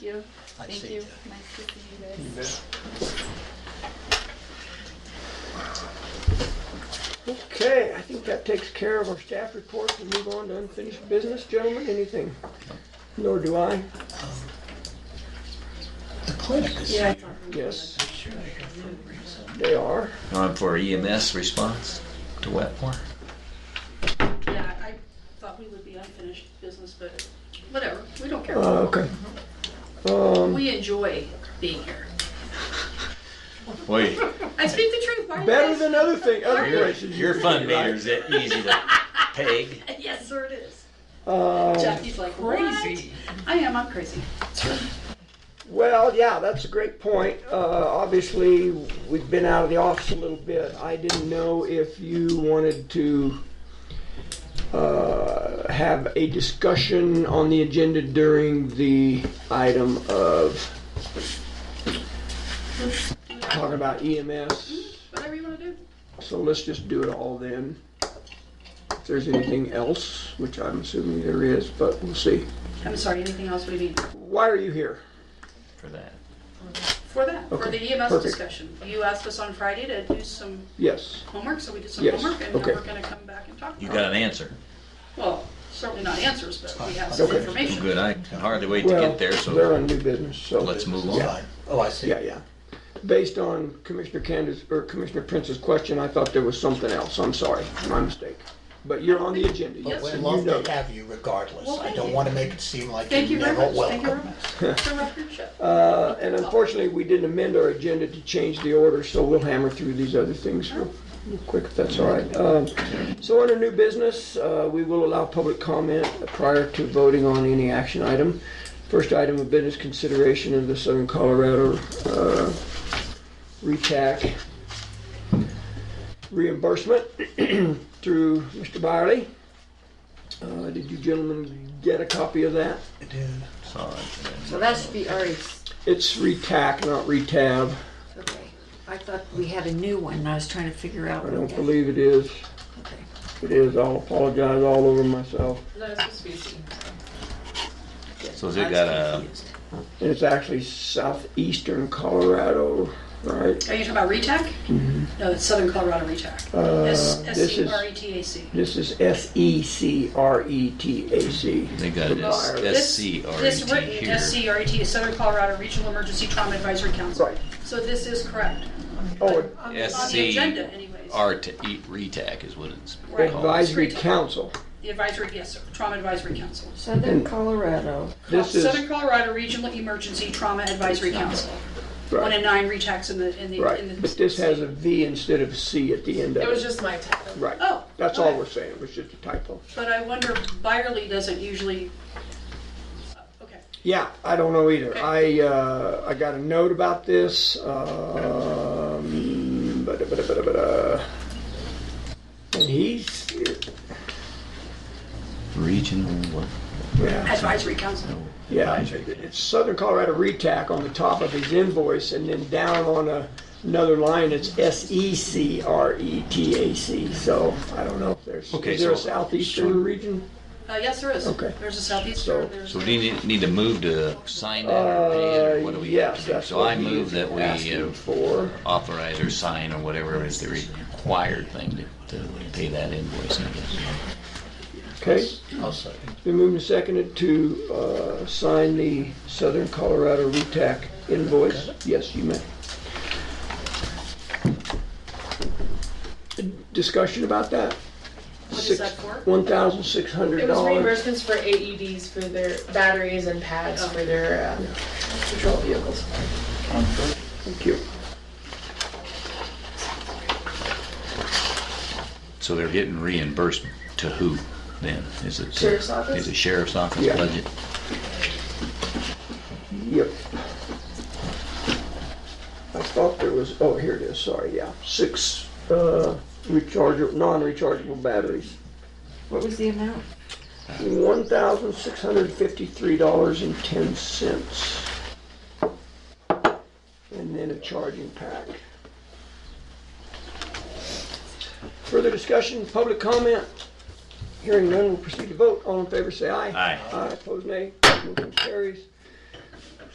you. Nice Thank seeing you. you. Nice to see you guys. Mm-hmm. Okay, I think that takes care of our staff report. We move on to unfinished business, gentlemen, anything? Nor do I. The clinic is Yeah. here. Yes, Sure, for a reason. they are. On for EMS response to Wetmore. Yeah, I thought we would be unfinished business, but whatever, we don't care. Uh, Okay. Um, We enjoy being here. Wait, I speak the truth, why are you Better guys- than other thing, other places. your fund meter's that easy to peg. Yes, sir it is. Uh, Jackie's like, crazy. I am, I'm crazy. Well, yeah, that's a great point. Uh, Obviously, we've been out of the office a little bit. I didn't know if you wanted to uh, have a discussion on the agenda during the item of talking about EMS. Whatever you wanna do. So let's just do it all then. If there's anything else, which I'm assuming there is, but we'll see. I'm sorry, anything else we need Why are you here? For that. for that, for Okay, the EMS perfect. discussion? You asked us on Friday to do some Yes. homework, so we did some Yes, homework, and now okay. we're gonna come back and talk You about it. got an answer. Well, certainly not answers, but we have some Okay. I'm information. good. I can hardly wait to Well, get there, They're so on new business, so. let's move on. Fine. Oh, I see. Yeah, yeah. Based on Commissioner Candace, or Commissioner Prince's question, I thought there was something else. I'm sorry, my mistake. But you're on the agenda. But Yes, we sir. love You know. to have you regardless. Well, I thank don't you. want to make it seem like Thank you're you very never much, thank you very welcome. much for my friendship. Uh, And unfortunately, we didn't amend our agenda to change the order, so we'll hammer through these other things real real quick, if that's all right. Um, So under new business, uh, we will allow public comment prior to voting on any action item. First item of business consideration of the Southern Colorado uh, RETAC reimbursement through Mr. Byerly. Uh, Did you gentlemen get a copy of that? Dude, Saw it. So that should be Ari's. It's RETAC, not RETAB. Okay. I thought we had a new one and I was trying to figure out. I what don't that- believe it is. Okay. It is. I'll apologize all over myself. So has it got a And it's actually southeastern Colorado, right? Are you talking about RETAC? No, it's Southern Colorado RETAC. S S Mm-hmm. Uh, this C is- R E T A C. This is S E C R E T A C. they got an S- This- This SCRT written here. SCRT is Southern Colorado Regional Emergency Trauma Advisory Council. Right. So this is correct. Oh, it- On E the agenda anyways. SCRT, RETAC is what it's Right. called. Advisory Council. The advisory, yes, sir, Trauma Advisory Council. Southern Colorado. This is, Southern Colorado Regional Emergency Trauma Advisory Council. One in right, nine RETACs in the, in the. in the- right. But this has a V instead of C at the end of It was it. just my title. Right. Oh, That's all okay. we're saying. It was just a typo. But I wonder, Byerly doesn't usually, okay. Yeah, I don't know either. I, uh, I got a note about this, um, but, but, but, but, uh, and he's, Regional what? yeah, Advisory Council. yeah, it's Southern Colorado RETAC on the top of his invoice, and then down on a, another line, it's E S-E-C-R-E-T-A-C, so I don't know if there's, Okay, is there a so- southeastern region? Uh, yes, there is. Okay. There's a So- southeastern, there's. So we need, need to move to sign that or pay it, or what do we have Uh, Yes, to do? that's So I what he move is that we uh, asking for. authorize or sign or whatever is the required thing to, to pay that invoice, I guess. Okay, I'll second. Been moved and seconded to uh, sign the Southern Colorado RETAC invoice. Yes, you may. Discussion about that? What is Six- that for? $1,600. It was reimbursements for AEDs for their batteries and pads for their um, patrol vehicles. Thank you. So they're getting reimbursed to who then? Is it? to- Sheriff's office? Is it sheriff's office Yeah. budget? Yep. I thought there was, oh, here it is, sorry, yeah. Six uh, rechargeable, non-rechargeable batteries. What was the amount? $1,653.10. And then a charging pack. Further discussion, public comment? Hearing none, we'll proceed to vote. All in favor, say aye. Aye. Aye, opposed, nay. Motion carries.